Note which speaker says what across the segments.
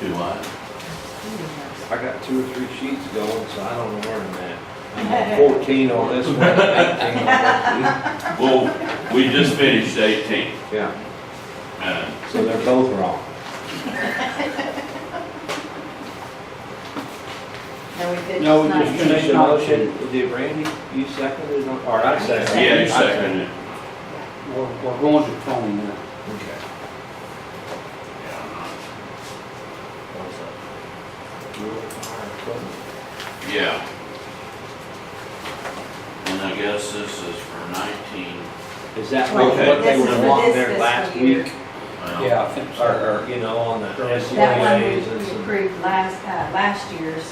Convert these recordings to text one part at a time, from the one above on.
Speaker 1: Do I?
Speaker 2: I got two or three sheets going, so I don't know where I'm at. I'm on Fourteen on this one, eighteen on that
Speaker 1: Well, we just finished eighteen.
Speaker 2: one. Yeah,
Speaker 1: Uh,
Speaker 2: so they're both wrong.
Speaker 3: No, we did.
Speaker 4: No, we
Speaker 3: tonight.
Speaker 4: just-
Speaker 2: Finish the motion, did Randy, you second it, or or I seconded it?
Speaker 1: Yeah, you seconded it.
Speaker 4: We're, we're going to phone now.
Speaker 2: Okay.
Speaker 1: Yeah. And I guess this is for nineteen.
Speaker 2: Is that what what they
Speaker 3: This is
Speaker 2: were
Speaker 3: for
Speaker 2: wanting
Speaker 3: this
Speaker 2: there
Speaker 3: fiscal
Speaker 2: last
Speaker 3: year.
Speaker 2: week?
Speaker 1: well,
Speaker 4: I think so.
Speaker 2: Or, or, you know, on the
Speaker 3: That one we
Speaker 2: SUAs and
Speaker 3: we
Speaker 2: some.
Speaker 3: approved last, uh, last year's,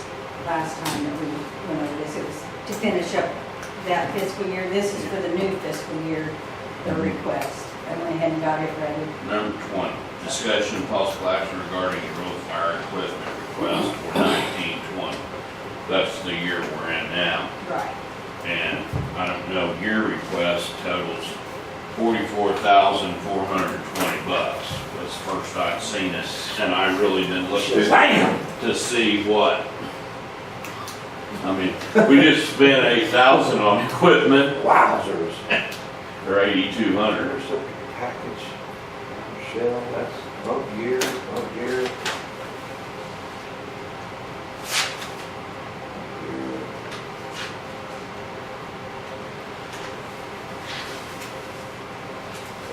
Speaker 3: last time that we went over this, it was to finish up that fiscal year. This is for the new fiscal year, the
Speaker 2: Mhm.
Speaker 3: request. I went ahead and got it ready.
Speaker 1: Number twenty, discussion and possible action regarding the road fire equipment request for nineteen twenty. That's the year we're in now.
Speaker 3: Right.
Speaker 1: And I don't know, your request totals forty-four thousand, four hundred and twenty bucks. That's the first I'd seen it, and I really didn't look through to see what. I mean, we just spent eight thousand on equipment,
Speaker 2: Wowzers.
Speaker 1: or eighty-two hundred.
Speaker 2: There's a package, Michelle, that's bump gear, bump gear.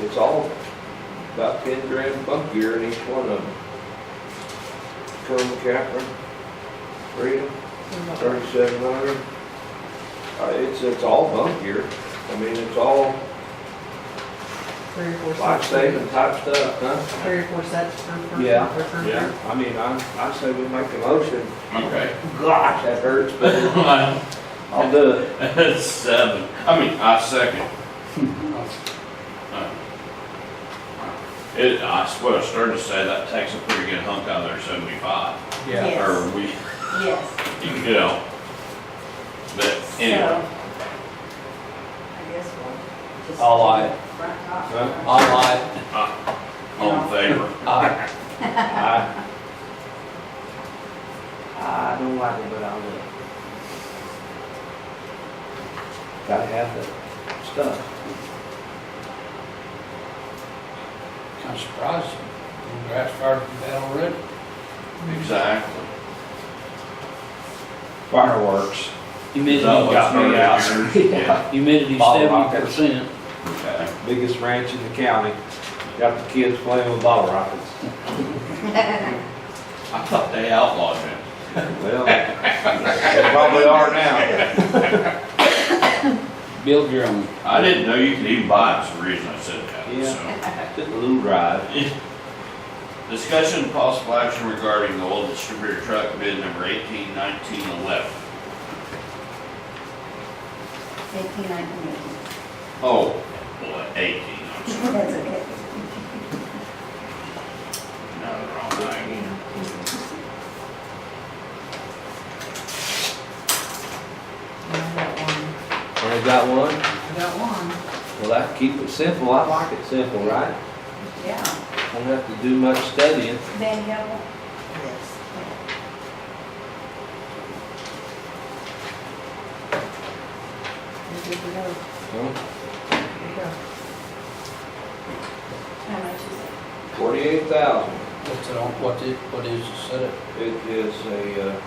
Speaker 2: It's all about ten grand bump gear in each one of them. Cone Catherine, Freedom, thirty-seven hundred. Uh, it's, it's all bump gear, I mean, it's all
Speaker 5: Three or four sets.
Speaker 2: life-saving type stuff, huh?
Speaker 5: Three or four sets per person.
Speaker 2: Yeah.
Speaker 5: per person.
Speaker 1: Yeah.
Speaker 2: I mean, I, I say we make a motion.
Speaker 1: Okay.
Speaker 2: Gosh, that hurts, but
Speaker 1: Well,
Speaker 2: I'll do it.
Speaker 1: That's seven. I mean, I second. It, I swear, I started to say that takes a pretty good hunk out of there, seventy-five.
Speaker 3: Yeah. Yes.
Speaker 1: Or we,
Speaker 3: Yes.
Speaker 1: you know. But anyway,
Speaker 3: So, I guess we'll just.
Speaker 4: All aye.
Speaker 3: Right off.
Speaker 2: Huh?
Speaker 4: All right,
Speaker 1: all in favor.
Speaker 4: I,
Speaker 2: I I don't like it, but I'll do it. Gotta have the stuff.
Speaker 4: I'm surprised, you grass started from that already.
Speaker 1: Exactly.
Speaker 2: Fireworks.
Speaker 4: Humidity,
Speaker 1: That was
Speaker 2: got me
Speaker 1: yours. Yeah,
Speaker 4: humidity
Speaker 2: Bottle
Speaker 4: seventy percent.
Speaker 1: okay.
Speaker 2: Biggest ranch in the county. Got the kids playing with bottle rockets.
Speaker 1: I thought they outlawed it.
Speaker 2: Well, they probably are now.
Speaker 4: Build your own.
Speaker 1: I didn't know you could even buy it, that's the reason I said that,
Speaker 2: Took a little ride.
Speaker 1: so. Discussion and possible action regarding the old distributor truck bid number eighteen nineteen eleven.
Speaker 3: Eighteen, nineteen, eighteen.
Speaker 1: Oh, boy, eighteen, I'm sorry,
Speaker 3: That's okay.
Speaker 1: no, the wrong thing.
Speaker 5: And I got one.
Speaker 2: Only got one?
Speaker 5: I got one.
Speaker 2: Well, I keep it simple, I like it simple, right?
Speaker 3: Yeah.
Speaker 2: Don't have to do much studying.
Speaker 3: Danielle?
Speaker 5: You're good to go. There you go.
Speaker 3: How much is it?
Speaker 2: Forty-eight thousand,
Speaker 4: What's it on, what is, what is the setup?
Speaker 2: it is a, uh,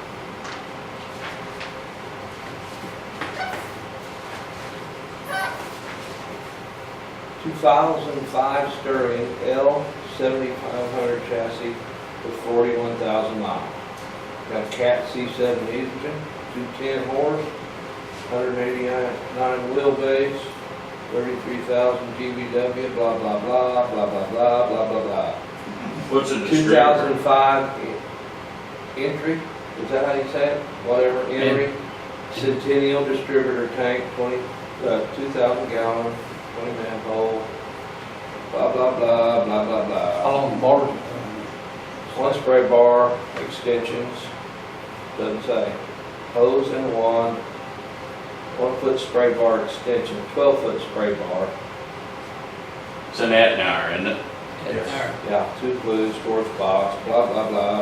Speaker 2: two thousand five Sterling L seventy-five hundred chassis with forty-one thousand miles. Got a Cat C seven engine, two ten horse, hundred eighty-nine wheelbase, thirty-three thousand GBW, blah, blah, blah, blah, blah, blah, blah, blah, blah.
Speaker 1: What's a distributor?
Speaker 2: 2005 entry, is that how you say it? Whatever, entry, Centennial Distributor Tank, 20, uh, 2,000 gallon, 20 manhole, blah, blah, blah, blah, blah,
Speaker 4: How
Speaker 2: blah.
Speaker 4: long the bar?
Speaker 2: One spray bar, extensions, doesn't say, hose and wand, one foot spray bar extension, 12 foot spray bar,
Speaker 1: It's an Etnar, isn't it?
Speaker 4: Yes.
Speaker 2: yeah, two glues, fourth box, blah, blah, blah,